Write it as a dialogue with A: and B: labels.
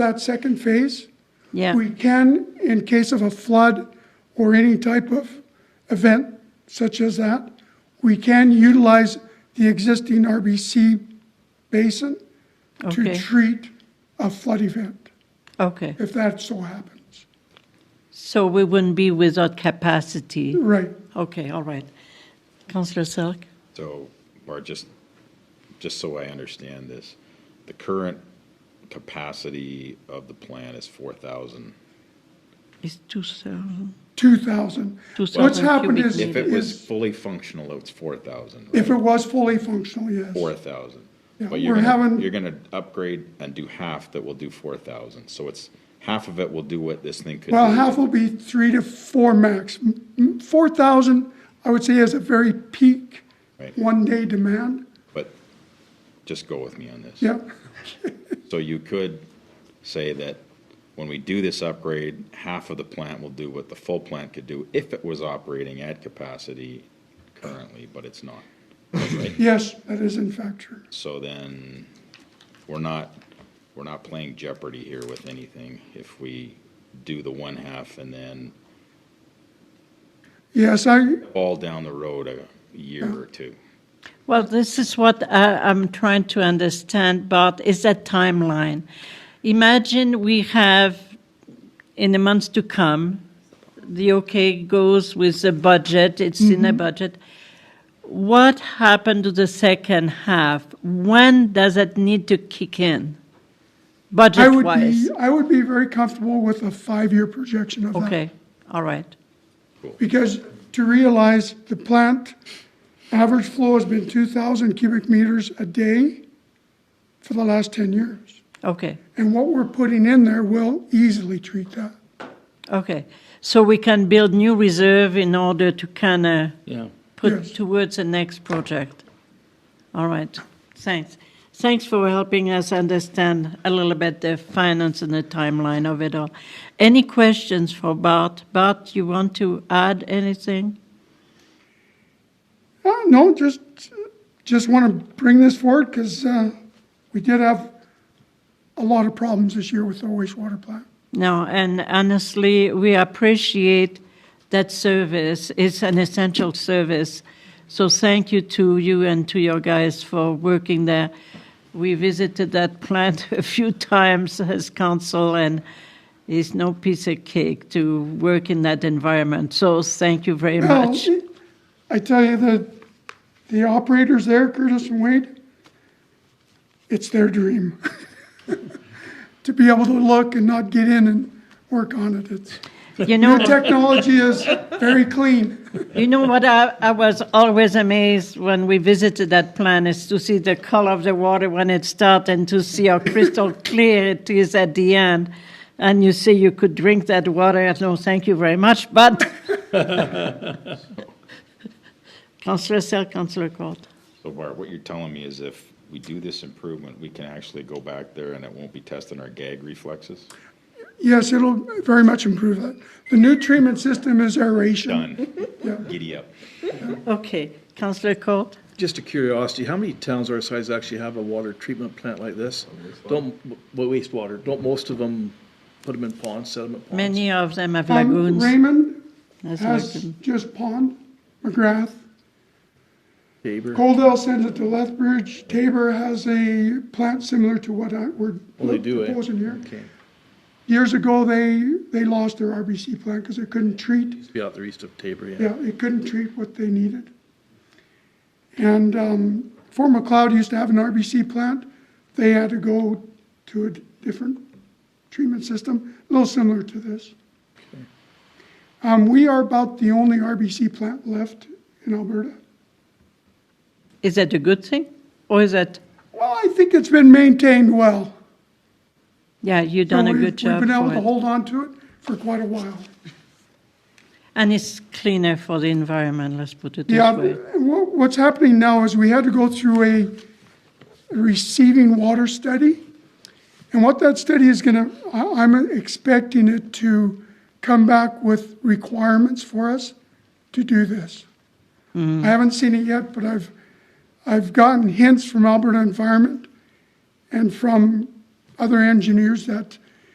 A: that second phase.
B: Yeah.
A: We can, in case of a flood or any type of event such as that, we can utilize the existing RBC basin to
B: Okay.
A: treat a flood event,
B: Okay.
A: if that so happens.
B: So we wouldn't be without capacity.
A: Right.
B: Okay, all right. Councillor Selk?
C: So, or just, just so I understand this, the current capacity of the plan is four thousand.
B: It's two thousand.
A: 2,000.
B: Two
A: What's
B: thousand
A: happened
B: cubic
A: is,
B: meters.
C: If it was
A: is,
C: fully functional, it's four thousand,
A: if it was fully functional, yes.
C: Four thousand.
A: Yeah,
C: But you're
A: we're
C: gonna,
A: having-
C: you're gonna upgrade and do half that will do four thousand, so it's, half of it will do what this thing could do.
A: Well, half will be three to four max. M- m- 4,000, I would say, is a very peak
C: Right.
A: one-day demand.
C: But just go with me on this.
A: Yep,
C: So you could say that when we do this upgrade, half of the plant will do what the full plant could do if it was operating at capacity currently, but it's not.
A: yes, that is in fact true.
C: So then, we're not, we're not playing Jeopardy here with anything if we do the one half and then
A: Yes, I,
C: fall down the road a year or two.
B: Well, this is what I, I'm trying to understand, But is that timeline. Imagine we have, in the months to come, the okay goes with the budget, it's in
A: Mm-hmm.
B: the budget. What happened to the second half? When does it need to kick in?
A: I would be,
B: Budget-wise?
A: I would be very comfortable with a five-year projection of that.
B: Okay, all right.
A: Because to realize the plant, average flow has been 2,000 cubic meters a day for the last 10 years.
B: Okay,
A: And what we're putting in there will easily treat that.
B: okay. So we can build new reserve in order to kind of
D: Yeah.
B: put
A: Yes.
B: towards the next project. All right, thanks. Thanks for helping us understand a little bit the finance and the timeline of it all. Any questions for Bart? Bart, you want to add anything?
A: Uh, no, just, just want to bring this forward because, uh, we did have a lot of problems this year with the wastewater plant.
B: No, and honestly, we appreciate that service. It's an essential service. So thank you to you and to your guys for working there. We visited that plant a few times as council, and it's no piece of cake to work in that environment. So thank you very
A: Well,
B: much.
A: Oh, I tell you, the, the operators there, Curtis and Wade, it's their dream. To be able to look and not get in and work on it. It's,
B: You
A: their
B: know,
A: technology is very clean.
B: You know what I, I was always amazed when we visited that plant is to see the color of the water when it starts and to see how crystal clear it is at the end. And you say you could drink that water. No, thank you very much. But Councillor Sell, Councillor Court.
C: So Bart, what you're telling me is if we do this improvement, we can actually go back there and it won't be testing our gag reflexes?
A: Yes, it'll very much improve that. The new treatment system is aeration.
C: Done. Giddy up.
B: Okay, Councillor Court.
D: Just a curiosity, how many towns our size actually have a water treatment plant like this? Don't, but wastewater, don't most of them put them in ponds, sediment ponds?
B: Many of them have
A: Um,
B: lagoons.
A: Raymond
B: That's
A: has
B: lagoon.
A: just Pond, McGrath.
D: Tabor,
A: Coldell sends it to Lethbridge. Tabor has a plant similar to what I, we're
D: well, they do, eh?
A: proposing here.
D: Okay,
A: Years ago, they, they lost their RBC plant because it couldn't treat,
D: used to be out there east of Tabor, yeah.
A: yeah, it couldn't treat what they needed. And, um, Fort McLeod used to have an RBC plant. They had to go to a d- different treatment system, a little similar to this. Um, we are about the only RBC plant left in Alberta.
B: Is that a good thing? Or is that,
A: Well, I think it's been maintained well.
B: yeah, you've done a
A: We've-
B: good job.
A: We've been able
B: for
A: to
B: it.
A: hold on to it for quite a while.
B: And it's cleaner for the environment, let's put it this
A: Yeah,
B: way.
A: wha- what's happening now is we had to go through a receiving water study. And what that study is going to, I'm expecting it to come back with requirements for us to do this. I haven't seen it yet, but I've, I've gotten hints from Alberta Environment and from other engineers that